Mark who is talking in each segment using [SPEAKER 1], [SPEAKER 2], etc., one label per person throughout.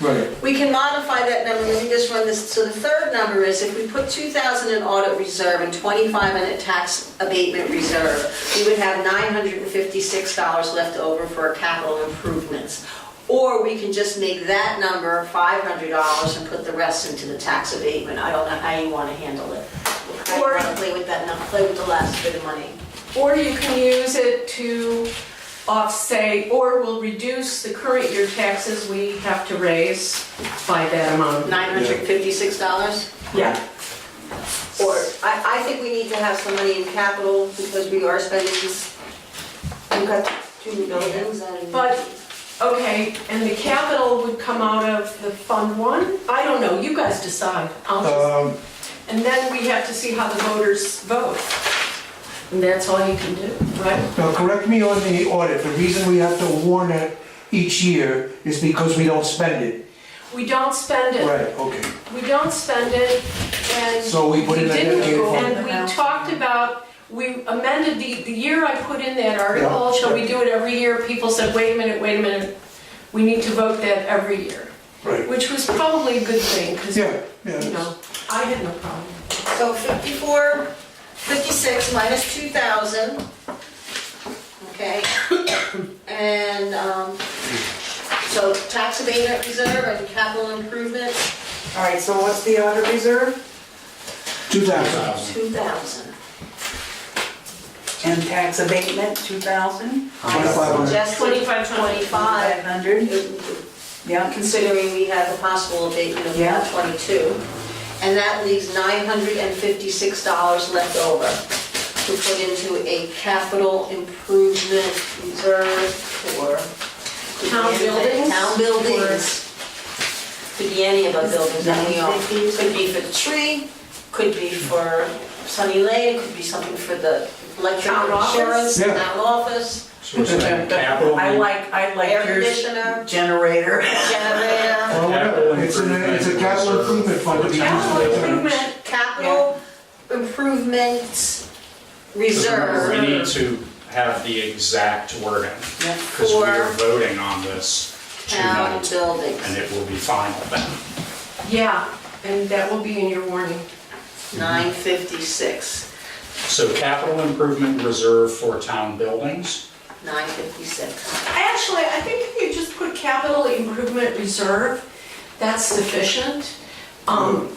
[SPEAKER 1] Right.
[SPEAKER 2] We can modify that number, let me just run this, so the third number is if we put 2,000 in audit reserve and 25 in a tax abatement reserve, we would have $956 left over for capital improvements. Or we can just make that number $500 and put the rest into the tax abatement. I don't know how you want to handle it. I
[SPEAKER 3] Or-
[SPEAKER 2] want to play with that, num- play with the last bit of money.
[SPEAKER 3] Or you can use it to offset, or will reduce the current year taxes we have to raise by that amount.
[SPEAKER 2] $956?
[SPEAKER 3] Yeah.
[SPEAKER 2] Or, I, I think we need to have some money in capital because we are spending, this- we've got two new buildings and.
[SPEAKER 3] But, okay, and the capital would come out of the Fund One? I don't know, you guys decide. I'll just,
[SPEAKER 1] Um,
[SPEAKER 3] and then we have to see how the voters vote. And that's all you can do, right?
[SPEAKER 1] Now, correct me on the audit, the reason we have to warn it each year is because we don't spend it.
[SPEAKER 3] We don't spend it.
[SPEAKER 1] Right, okay.
[SPEAKER 3] We don't spend it, and.
[SPEAKER 1] So we put in that
[SPEAKER 3] didn't,
[SPEAKER 1] dedicated fund.
[SPEAKER 3] And we talked about, we amended the, the year I put in that article,
[SPEAKER 1] Yeah,
[SPEAKER 3] shall we
[SPEAKER 1] yeah.
[SPEAKER 3] do it every year? People said, wait a minute, wait a minute, we need to vote that every year,
[SPEAKER 1] Right.
[SPEAKER 3] which was probably a good thing, because, you
[SPEAKER 1] Yeah, yeah.
[SPEAKER 3] know, I had no problem.
[SPEAKER 2] So 54, 56 minus 2,000. Okay. And, um, so tax abatement reserve and capital improvement,
[SPEAKER 4] All right, so what's the audit reserve?
[SPEAKER 1] Two thousand.
[SPEAKER 2] 2,000.
[SPEAKER 4] And tax abatement, 2,000?
[SPEAKER 1] Twenty-five hundred.
[SPEAKER 2] Just
[SPEAKER 3] 25,
[SPEAKER 2] 25.
[SPEAKER 4] 500? Yeah,
[SPEAKER 2] considering we have a possible abatement of
[SPEAKER 4] Yeah.
[SPEAKER 2] 122. And that leaves $956 left over to put into a capital improvement reserve for...
[SPEAKER 3] Town buildings?
[SPEAKER 2] Town buildings. Could be any of our buildings that we own.
[SPEAKER 4] 950.
[SPEAKER 2] Could be for the tree, could be for Sunny Lane, could be something for the electric
[SPEAKER 3] Town office?
[SPEAKER 2] insurance,
[SPEAKER 1] Yeah.
[SPEAKER 2] town office,
[SPEAKER 5] So it's like capital,
[SPEAKER 4] I
[SPEAKER 5] and-
[SPEAKER 4] like, I like
[SPEAKER 2] air
[SPEAKER 4] your
[SPEAKER 2] conditioner,
[SPEAKER 4] generator.
[SPEAKER 2] generator.
[SPEAKER 1] Well, whatever. Oh, It's an,
[SPEAKER 5] Capital
[SPEAKER 1] it's a capital improvement fund. to be used for
[SPEAKER 3] Capital
[SPEAKER 1] that.
[SPEAKER 3] improvement,
[SPEAKER 2] capital improvements reserve
[SPEAKER 5] we need to have the exact wording, because we are
[SPEAKER 2] for
[SPEAKER 5] voting on this
[SPEAKER 2] town
[SPEAKER 5] tonight, and
[SPEAKER 2] buildings.
[SPEAKER 5] it will be final then.
[SPEAKER 3] yeah, and that will be in your warning.
[SPEAKER 2] Nine fifty-six,
[SPEAKER 5] So capital improvement reserve for town buildings,
[SPEAKER 2] nine fifty-six.
[SPEAKER 3] Actually, I think if you just put capital improvement reserve, that's sufficient. Um,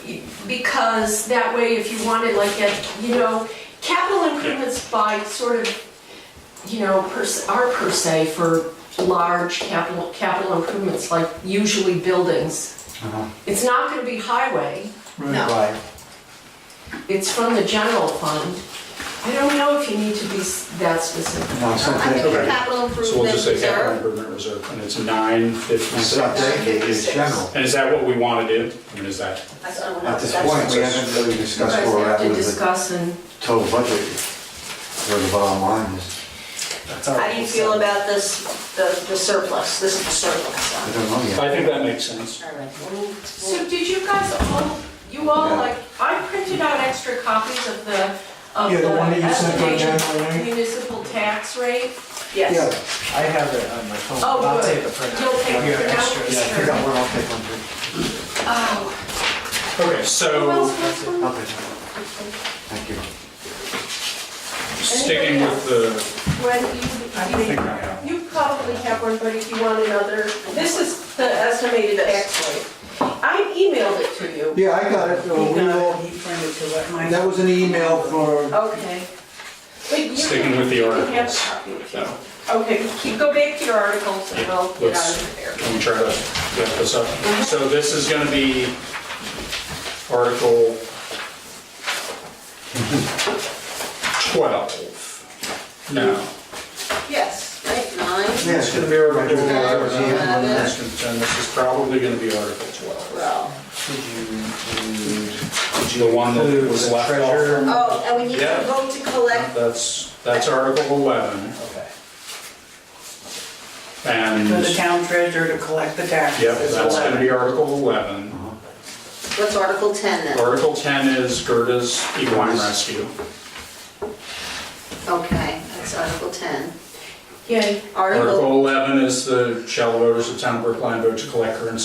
[SPEAKER 3] because that way, if you wanted like a, you know, capital improvements by sort of, you know, per se, are per se for large capital, capital improvements, like usually buildings.
[SPEAKER 5] Uh-huh.
[SPEAKER 3] It's not gonna be highway,
[SPEAKER 1] Right.
[SPEAKER 3] it's from the general fund. I don't know if you need to be s- that specific.
[SPEAKER 6] No, it's not
[SPEAKER 2] I think
[SPEAKER 6] dedicated.
[SPEAKER 2] the
[SPEAKER 5] Okay.
[SPEAKER 2] capital
[SPEAKER 5] so we'll
[SPEAKER 2] improvement
[SPEAKER 5] just say capital
[SPEAKER 2] reserve,
[SPEAKER 5] improvement reserve, and it's nine
[SPEAKER 6] It's not
[SPEAKER 5] fifty-six.
[SPEAKER 6] dedicated, it's general.
[SPEAKER 5] And is that what we want to do? And is that,
[SPEAKER 2] that's, I don't know,
[SPEAKER 6] At this
[SPEAKER 2] that's-
[SPEAKER 6] point, we haven't really
[SPEAKER 3] You
[SPEAKER 6] discussed
[SPEAKER 3] guys
[SPEAKER 6] where we're
[SPEAKER 3] have
[SPEAKER 6] at
[SPEAKER 3] to
[SPEAKER 6] with the
[SPEAKER 3] discuss and.
[SPEAKER 6] total budget, where the bottom line is.
[SPEAKER 2] How do you feel about this, the the surplus, this is the
[SPEAKER 6] I
[SPEAKER 2] surplus.
[SPEAKER 6] don't know yet.
[SPEAKER 5] I think that makes sense.
[SPEAKER 2] All right, we'll- we'll-
[SPEAKER 3] So did you guys all, you all,
[SPEAKER 6] Yeah.
[SPEAKER 3] like, I printed out extra copies of the, of
[SPEAKER 1] Yeah, the one that
[SPEAKER 3] the
[SPEAKER 1] you sent on
[SPEAKER 3] estimated
[SPEAKER 1] January.
[SPEAKER 3] municipal tax rate?
[SPEAKER 6] Yeah,
[SPEAKER 2] Yes,
[SPEAKER 7] I have it on my phone.
[SPEAKER 3] Oh,
[SPEAKER 7] I'll
[SPEAKER 3] good.
[SPEAKER 7] take a print.
[SPEAKER 3] You'll take
[SPEAKER 7] Here,
[SPEAKER 3] a print out?
[SPEAKER 7] extra.
[SPEAKER 6] yeah, I forgot what I'll take on to.
[SPEAKER 3] Oh.
[SPEAKER 5] Okay,
[SPEAKER 3] Who
[SPEAKER 5] so
[SPEAKER 3] else wants one?
[SPEAKER 6] I'll take one.
[SPEAKER 7] um,
[SPEAKER 6] Thank you.
[SPEAKER 5] sticking with the,
[SPEAKER 3] When you, you probably have one, but if you want another, this is the estimated tax rate. I emailed it to you.
[SPEAKER 1] Yeah, I got it.
[SPEAKER 4] He
[SPEAKER 1] Uh, we
[SPEAKER 4] got
[SPEAKER 1] all-
[SPEAKER 4] it, he printed to what mine.
[SPEAKER 1] That was an email for,
[SPEAKER 3] Okay. But you-
[SPEAKER 5] Sticking with the
[SPEAKER 3] you can have a
[SPEAKER 5] articles.
[SPEAKER 3] copy if you
[SPEAKER 5] No.
[SPEAKER 3] want. Okay, keep, go back to your articles and I'll get out
[SPEAKER 5] Let's-
[SPEAKER 3] of there.
[SPEAKER 5] Let me try to wrap this up. So this is gonna be Article 12. No.
[SPEAKER 2] yes, right, nine,
[SPEAKER 6] Yeah,
[SPEAKER 5] It's gonna be Article
[SPEAKER 6] Yeah, I was here when it was-
[SPEAKER 5] 11. And this is probably gonna be Article 12.
[SPEAKER 2] well,
[SPEAKER 7] Did you include
[SPEAKER 5] The one that was left off.
[SPEAKER 2] oh, and we need to
[SPEAKER 5] Yeah.
[SPEAKER 2] vote to collect
[SPEAKER 5] That's, that's Article 11.
[SPEAKER 7] Okay.
[SPEAKER 5] And,
[SPEAKER 4] For the
[SPEAKER 5] yep,
[SPEAKER 4] town treasurer to collect the taxes. is
[SPEAKER 5] that's gonna be
[SPEAKER 4] 11.
[SPEAKER 5] Article 11.
[SPEAKER 2] What's Article 10 then?
[SPEAKER 5] Article 10 is Gerta's equine rescue.
[SPEAKER 2] Okay, that's Article 10.
[SPEAKER 3] Yay.
[SPEAKER 2] Article
[SPEAKER 5] Article 11 is the shall voters of town of Brookline vote to collect current